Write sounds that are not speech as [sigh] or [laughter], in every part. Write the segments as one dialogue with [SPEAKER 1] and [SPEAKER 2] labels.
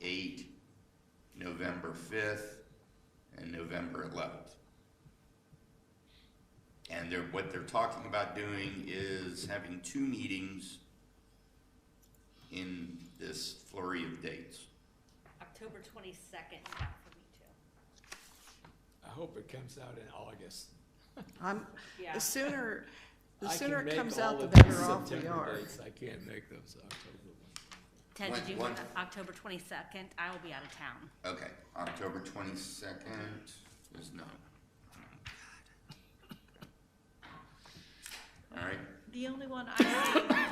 [SPEAKER 1] date November fifth and November eleventh. And they're, what they're talking about doing is having two meetings in this flurry of dates.
[SPEAKER 2] October twenty-second is out for me too.
[SPEAKER 3] I hope it comes out in August.
[SPEAKER 4] I'm,
[SPEAKER 2] Yeah.
[SPEAKER 3] [laughs]
[SPEAKER 4] the sooner, the
[SPEAKER 3] I can
[SPEAKER 4] sooner it
[SPEAKER 3] make
[SPEAKER 4] comes
[SPEAKER 3] all
[SPEAKER 4] out, the
[SPEAKER 3] of these
[SPEAKER 4] better off we
[SPEAKER 3] September
[SPEAKER 4] are.
[SPEAKER 3] dates. I can't make those October ones.
[SPEAKER 2] Ted,
[SPEAKER 1] When-
[SPEAKER 2] did you
[SPEAKER 1] when-
[SPEAKER 2] want it October twenty-second? I will be out of town.
[SPEAKER 1] Okay, October twenty-second is Oh, no. All right,
[SPEAKER 5] The only one I,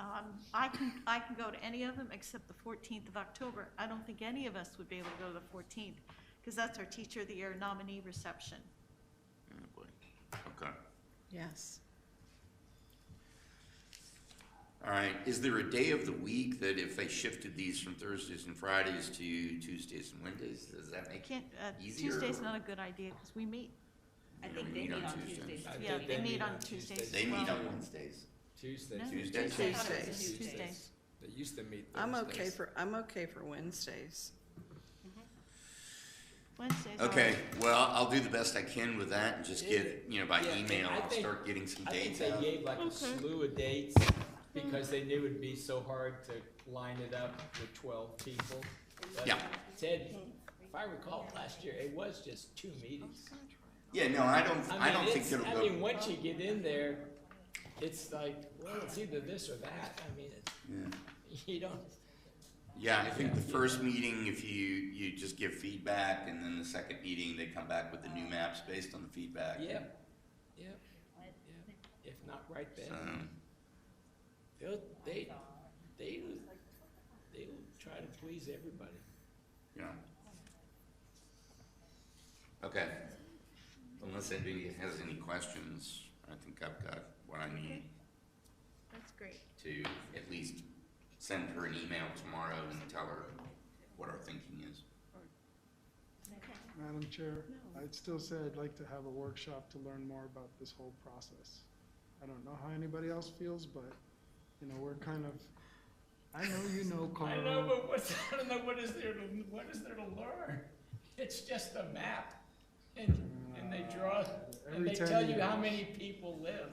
[SPEAKER 5] um, I can, I can go to any of them except the fourteenth of October. I don't think any of us would be able to go to the fourteenth, because that's our Teacher of the Year nominee reception.
[SPEAKER 1] Oh, boy. okay.
[SPEAKER 4] Yes.
[SPEAKER 1] All right, is there a day of the week that if they shifted these from Thursdays and Fridays to Tuesdays and Wednesdays, does that
[SPEAKER 5] I
[SPEAKER 1] make?
[SPEAKER 5] Can't, uh,
[SPEAKER 1] Easier.
[SPEAKER 5] Tuesday's not a good idea, because we meet,
[SPEAKER 2] I
[SPEAKER 1] Yeah,
[SPEAKER 2] think
[SPEAKER 1] we
[SPEAKER 2] they
[SPEAKER 1] meet
[SPEAKER 2] meet
[SPEAKER 1] on
[SPEAKER 2] on
[SPEAKER 1] Tuesday.
[SPEAKER 2] Tuesdays.
[SPEAKER 3] I
[SPEAKER 2] don't
[SPEAKER 5] Yeah,
[SPEAKER 3] think
[SPEAKER 5] they
[SPEAKER 2] we?
[SPEAKER 5] meet on Tuesdays.
[SPEAKER 1] They meet on
[SPEAKER 5] Well-
[SPEAKER 1] Wednesdays.
[SPEAKER 3] Tuesdays.
[SPEAKER 5] No.
[SPEAKER 1] Tuesdays?
[SPEAKER 2] I thought it was
[SPEAKER 4] Tuesdays.
[SPEAKER 2] Tuesdays.
[SPEAKER 3] They used to meet
[SPEAKER 4] I'm
[SPEAKER 3] Thursdays.
[SPEAKER 4] okay for, I'm okay for Wednesdays.
[SPEAKER 5] Wednesday's. are-
[SPEAKER 1] Okay, well, I'll do the best I can with that and just get, you know, by
[SPEAKER 3] Yeah,
[SPEAKER 1] email,
[SPEAKER 3] I
[SPEAKER 1] I'll
[SPEAKER 3] think-
[SPEAKER 1] start getting some
[SPEAKER 3] I think
[SPEAKER 1] dates
[SPEAKER 3] they
[SPEAKER 1] out.
[SPEAKER 3] gave like a
[SPEAKER 5] Okay.
[SPEAKER 3] slew of dates because they knew it'd be so hard to line it up with twelve people. But
[SPEAKER 1] Yeah.
[SPEAKER 3] Ted, if I recall last year, it was just two meetings.
[SPEAKER 1] Yeah, no, I don't, I
[SPEAKER 3] mean,
[SPEAKER 1] don't think
[SPEAKER 3] it's-
[SPEAKER 1] it'll
[SPEAKER 3] I mean,
[SPEAKER 1] go.
[SPEAKER 3] once you get in there, it's like, well, it's either this or that. I mean, it's,
[SPEAKER 1] Yeah.
[SPEAKER 3] [laughs] you don't,
[SPEAKER 1] Yeah, I think the
[SPEAKER 3] Yeah.
[SPEAKER 1] first meeting, if you, you just give feedback, and then the second meeting, they come back with the new maps based on the feedback.
[SPEAKER 3] yep, yep, yep. If not right
[SPEAKER 1] So,
[SPEAKER 3] then, they'll, they, they, they'll try to please everybody.
[SPEAKER 1] yeah. Okay. Unless anybody has any questions, I think I've got what I need
[SPEAKER 5] That's great.
[SPEAKER 1] to at least send her an email tomorrow and tell her what our thinking is.
[SPEAKER 6] Madam Chair, I'd still say I'd like to have a workshop to learn more about this whole process. I don't know how anybody else feels, but, you know, we're kind of, I know you know
[SPEAKER 3] I know,
[SPEAKER 6] Carl.
[SPEAKER 3] but what's, [laughs] I don't know, what is there to, what is there to learn? [laughs] It's just a map, and, and they draw, and
[SPEAKER 6] Every
[SPEAKER 3] they
[SPEAKER 6] time
[SPEAKER 3] tell Uh, you
[SPEAKER 6] you-
[SPEAKER 3] how many people live.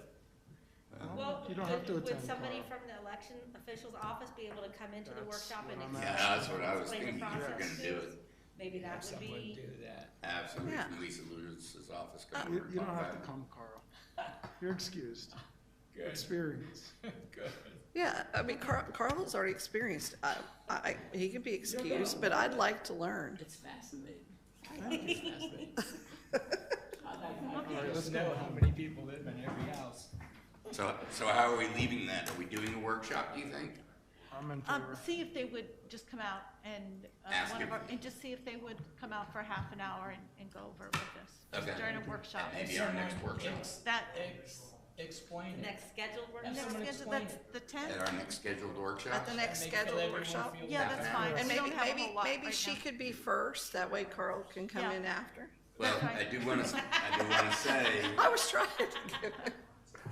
[SPEAKER 2] Well,
[SPEAKER 6] You don't have to
[SPEAKER 2] would- would
[SPEAKER 6] attend,
[SPEAKER 2] somebody
[SPEAKER 6] Carl.
[SPEAKER 2] from the election official's office be able to come into the
[SPEAKER 6] That's
[SPEAKER 2] workshop
[SPEAKER 6] what
[SPEAKER 2] and
[SPEAKER 6] I'm
[SPEAKER 1] Yeah,
[SPEAKER 2] explain?
[SPEAKER 6] asking.
[SPEAKER 1] that's what I was
[SPEAKER 2] explain the
[SPEAKER 1] thinking, if you're
[SPEAKER 2] process?
[SPEAKER 1] gonna do it,
[SPEAKER 2] Maybe
[SPEAKER 3] Have
[SPEAKER 2] that would
[SPEAKER 3] someone
[SPEAKER 2] be,
[SPEAKER 3] do that.
[SPEAKER 1] have somebody
[SPEAKER 4] Yeah.
[SPEAKER 1] from Lisa Lewis's office come
[SPEAKER 6] Uh, You,
[SPEAKER 1] over and
[SPEAKER 6] you don't
[SPEAKER 1] talk
[SPEAKER 6] have
[SPEAKER 1] about
[SPEAKER 6] to
[SPEAKER 1] it.
[SPEAKER 6] come, Carl. You're excused.
[SPEAKER 3] Good,
[SPEAKER 6] Experience.
[SPEAKER 3] good.
[SPEAKER 4] Yeah, I mean, Carl, Carl's already experienced, I, I, he can be excused, but I'd like to learn.
[SPEAKER 3] [laughs] It's fascinating. I think [laughs] it's
[SPEAKER 2] [laughs]
[SPEAKER 3] fascinating. I like, I
[SPEAKER 6] Okay.
[SPEAKER 3] just know how many people live in every house.
[SPEAKER 1] So, so how are we leaving that? Are we doing a workshop, do you think?
[SPEAKER 6] I'm in
[SPEAKER 5] Um,
[SPEAKER 6] favor.
[SPEAKER 5] see if they would just come out and, uh,
[SPEAKER 1] Ask
[SPEAKER 5] one of
[SPEAKER 1] if-
[SPEAKER 5] our, and just see if they would come out for half an hour and, and go over it with us. just
[SPEAKER 1] Okay.
[SPEAKER 5] During a workshop.
[SPEAKER 1] And maybe our next workshop,
[SPEAKER 3] Ex-
[SPEAKER 5] That,
[SPEAKER 3] ex- explain
[SPEAKER 2] the
[SPEAKER 3] it.
[SPEAKER 2] next scheduled
[SPEAKER 3] Have
[SPEAKER 2] workshop?
[SPEAKER 5] next,
[SPEAKER 3] someone
[SPEAKER 5] schedule-
[SPEAKER 3] explain
[SPEAKER 5] that's
[SPEAKER 3] it.
[SPEAKER 5] the tenth?
[SPEAKER 1] at our next scheduled
[SPEAKER 4] At
[SPEAKER 1] workop?
[SPEAKER 4] the next
[SPEAKER 3] Make- let
[SPEAKER 4] scheduled
[SPEAKER 3] everyone
[SPEAKER 4] workshop.
[SPEAKER 3] feel
[SPEAKER 5] Yeah,
[SPEAKER 3] better.
[SPEAKER 5] that's fine.
[SPEAKER 4] And
[SPEAKER 5] We
[SPEAKER 4] maybe,
[SPEAKER 5] don't have a
[SPEAKER 4] maybe,
[SPEAKER 5] whole lot
[SPEAKER 4] maybe
[SPEAKER 5] right
[SPEAKER 4] she
[SPEAKER 5] now.
[SPEAKER 4] could be first, that way Carl can come
[SPEAKER 5] Yeah.
[SPEAKER 4] in after.
[SPEAKER 1] Well, I do wanna, I do wanna say,
[SPEAKER 4] I was trying to give,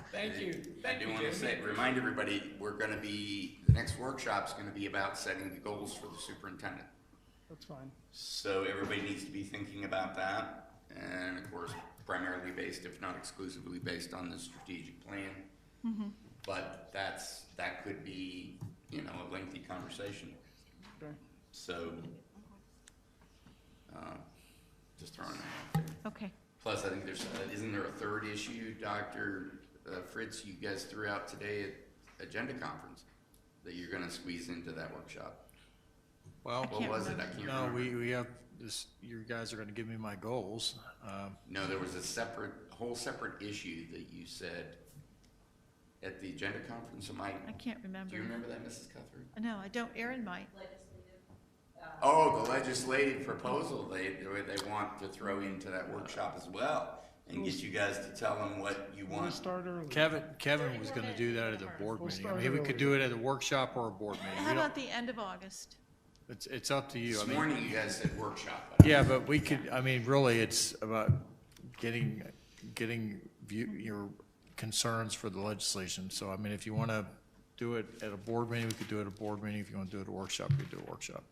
[SPEAKER 3] Thank you.
[SPEAKER 1] I
[SPEAKER 3] Thank
[SPEAKER 1] do
[SPEAKER 3] you,
[SPEAKER 1] wanna
[SPEAKER 3] Jamie.
[SPEAKER 1] say, remind everybody, we're gonna be, the next workshop's gonna be about setting the goals for the superintendent.
[SPEAKER 6] That's fine.
[SPEAKER 1] So everybody needs to be thinking about that, and of course, primarily based, if not exclusively based on the strategic plan. But that's, that could be, you know, a lengthy conversation,
[SPEAKER 6] Okay.
[SPEAKER 1] so, uh, just throwing that out there.
[SPEAKER 5] Okay.
[SPEAKER 1] Plus, I think there's, uh, isn't there a third issue, Dr. uh, Fritz, you guys threw out today at Agenda Conference that you're gonna squeeze into that workshop?
[SPEAKER 7] Well,
[SPEAKER 1] What
[SPEAKER 5] can't
[SPEAKER 1] was it? I can't
[SPEAKER 7] no,
[SPEAKER 1] remember.
[SPEAKER 7] we, we have this, you guys are gonna give me my goals. Um,
[SPEAKER 1] No, there was a separate, whole separate issue that you said at the Agenda Conference. Am I,
[SPEAKER 5] I can't remember.
[SPEAKER 1] do you remember that, Mrs. Cuthbert?
[SPEAKER 5] No, I don't. Erin might.
[SPEAKER 1] Oh, the legislative proposal they, they want to throw into that workshop as well and get you guys to tell them what you
[SPEAKER 6] We'll
[SPEAKER 1] want.
[SPEAKER 6] start early.
[SPEAKER 7] Kevin, Kevin was gonna do that at a board
[SPEAKER 6] We'll
[SPEAKER 7] meeting. I
[SPEAKER 6] start
[SPEAKER 7] mean, we
[SPEAKER 6] early.
[SPEAKER 7] could do it at a workshop or a board meeting.
[SPEAKER 5] How
[SPEAKER 7] We
[SPEAKER 5] about
[SPEAKER 7] don't,
[SPEAKER 5] the end of August?
[SPEAKER 7] it's, it's up to you. I
[SPEAKER 1] This
[SPEAKER 7] mean,
[SPEAKER 1] morning you guys said workshop.
[SPEAKER 7] yeah, but we could, I mean, really, it's about getting, getting view, your concerns for the legislation. So I mean, if you wanna do it at a board meeting, we could do it at a board meeting. If you wanna do it at a workshop, we could do a workshop.